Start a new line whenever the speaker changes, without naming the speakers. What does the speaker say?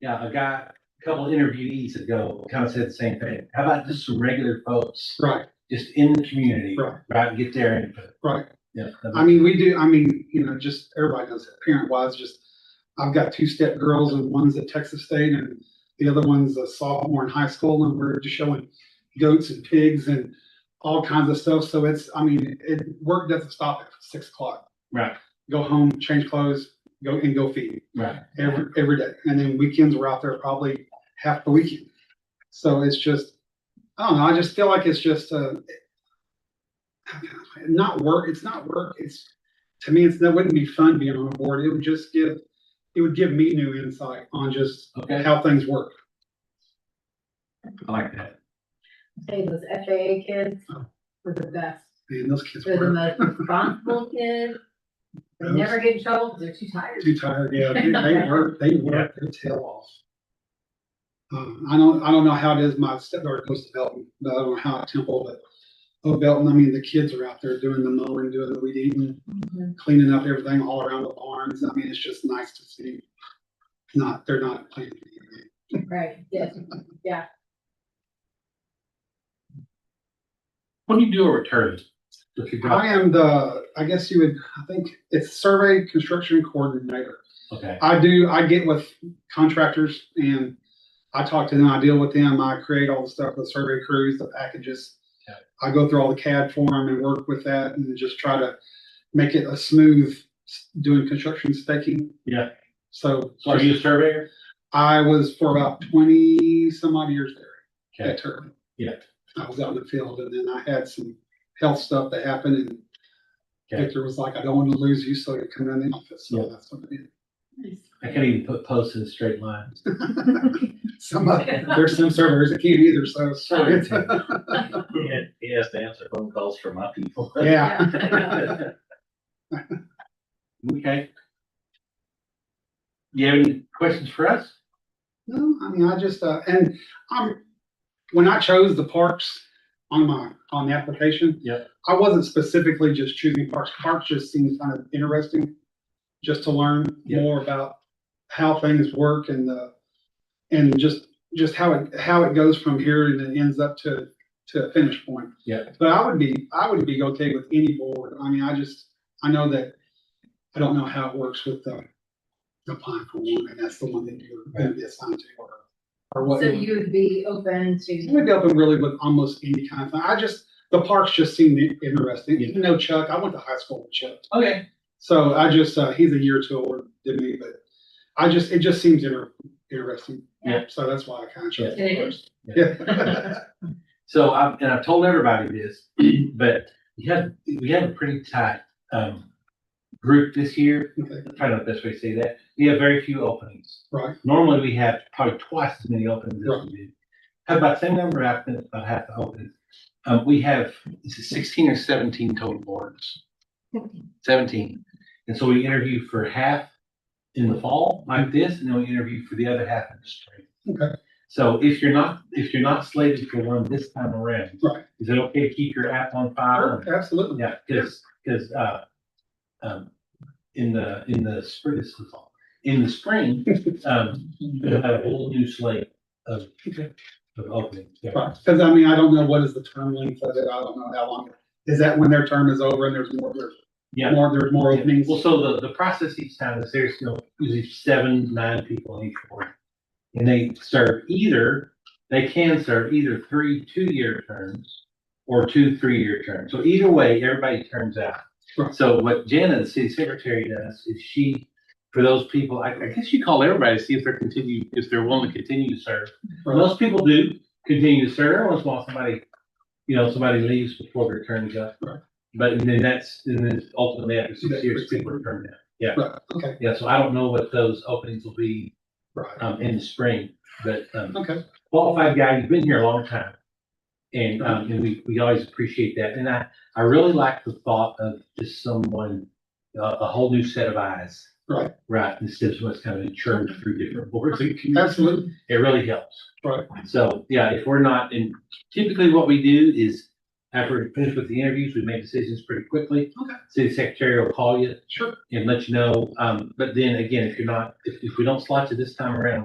yeah, a guy, a couple interviewees ago, kind of said the same thing. How about just some regular folks,
Right,
just in the community,
Right.
right, get their input.
right.
Yeah.
I mean, we do, I mean, you know, just everybody knows that parent wise, just, I've got two step girls and one's at Texas State and the other one's a sophomore in high school and we're just showing goats and pigs and all kinds of stuff. So it's, I mean, it, work doesn't stop at six o'clock.
Right.
Go home, change clothes, go and go feed
Right,
every, every day. And then weekends we're out there probably half the weekend. So it's just, I don't know, I just feel like it's just, uh, not work, it's not work, it's, to me, it's, that wouldn't be fun being on a board. It would just give, it would give me new insight on just
okay,
how things work.
I like that.
Say those FAA kids were the best.
Man, those kids
They're the
were
most responsible kids. They never get in trouble because they're too tired.
too tired, yeah, they, they work, they work their tail off. Um, I don't, I don't know how it is, my stepdaughter goes to Belton, but I don't know how at Temple, but, oh, Belton, I mean, the kids are out there doing the mowing, doing the weed eating,
Mhm.
cleaning up everything all around the barns, I mean, it's just nice to see. Not, they're not playing. video games.
Right, yes, yeah.
What do you do over at Turley? Look at God.
I am the, I guess you would, I think it's survey construction coordinator.
Okay,
I do, I get with contractors and I talk to them, I deal with them, I create all the stuff, the survey crews, the packages.
Yeah.
I go through all the CAD for them and work with that and just try to make it a smooth, s- doing construction staking.
Yeah.
So
so are you a surveyor?
I was for about twenty some odd years there.
Okay.
That term.
Yeah.
I was out in the field and then I had some health stuff that happened and
Okay.
Victor was like, I don't want to lose you, so you come in the office.
Yeah.
So that's what I did.
I can't even put posts in a straight line.
Some, of- there's some servers that can't either, so. it's-
He had- he has to answer phone calls from my people.
Yeah,
Okay. Do you have any questions for us?
no, I mean, I just, uh, and I'm, Um, when I chose the parks on my, on the application.
Yep.
I wasn't specifically just choosing parks, parks just seems kind of interesting, just to learn
Yep.
more about how things work and the, and just, just how it, how it goes from here and then ends up to, to a finish point.
Yeah.
But I would be, I would be okay with any board. I mean, I just, I know that, I don't know how it works with the, the plan for one, and that's the one that you're gonna be assigned to or, or what.
So you would be open
It
to,
would be open really with almost any kind of thing. I just, the parks just seemed interesting. You know Chuck, I went to high school with Chuck.
Okay.
So I just, uh, he's a year or two older than me, but I just, it just seems inter- interesting.
Yeah.
So that's why I kind of chose.
Yeah. It is.
Yeah.
So I've, and I've told everybody this, but we had, we had a pretty tight, um, group this year.
Okay.
Trying to best way to say that. We have very few openings.
Right.
Normally we have probably twice as many openings as we do. Have about the same number of applicants, about half the openings. Um, we have is it sixteen or seventeen total boards. Seventeen. And so we interview for half in the fall like this, and then we interview for the other half in the spring.
Okay.
So if you're not, if you're not slated for one this time around,
Right.
is it okay to keep your app on file?
Sure, Absolutely.
Yeah, because, because, uh, um, in the, in the spring, this is all, in the spring, um, we'll have a whole new slate of,
Okay.
of openings. yeah.
Right. Cause I mean, I don't know what is the term length of it. I don't know how long. Is that when their term is over and there's more, there's
Yeah,
more, there's more openings?
well, so the, the process each time is there's, you know, usually seven, nine people in each board. And they serve either, they can serve either three, two-year terms or two, three-year terms. So either way, everybody turns out.
Right.
So what Jana, the city secretary, does is she, for those people, I, I guess you call everybody to see if they're continue, if they're willing to continue to serve.
Right.
Most people do continue to serve, every once in a while somebody, you know, somebody leaves before their term is up.
Right.
But then that's, and then ultimately after six
That's
years,
pretty
people
cool.
return now. Yeah,
Right, okay,
yeah, so I don't know what those openings will be,
right,
um, in the spring, but, um,
okay.
qualified guy, you've been here a long time. And, um, and we, we always appreciate that. And I, I really like the thought of just someone, a, a whole new set of eyes.
Right.
Right, instead of what's kind of churned through different boards. and committees.
Absolutely,
It really helps.
right,
So, yeah, if we're not, and typically what we do is after we finish with the interviews, we make decisions pretty quickly.
Okay.
City secretary will call you
sure.
and let you know. Um, but then again, if you're not, if, if we don't slot you this time around,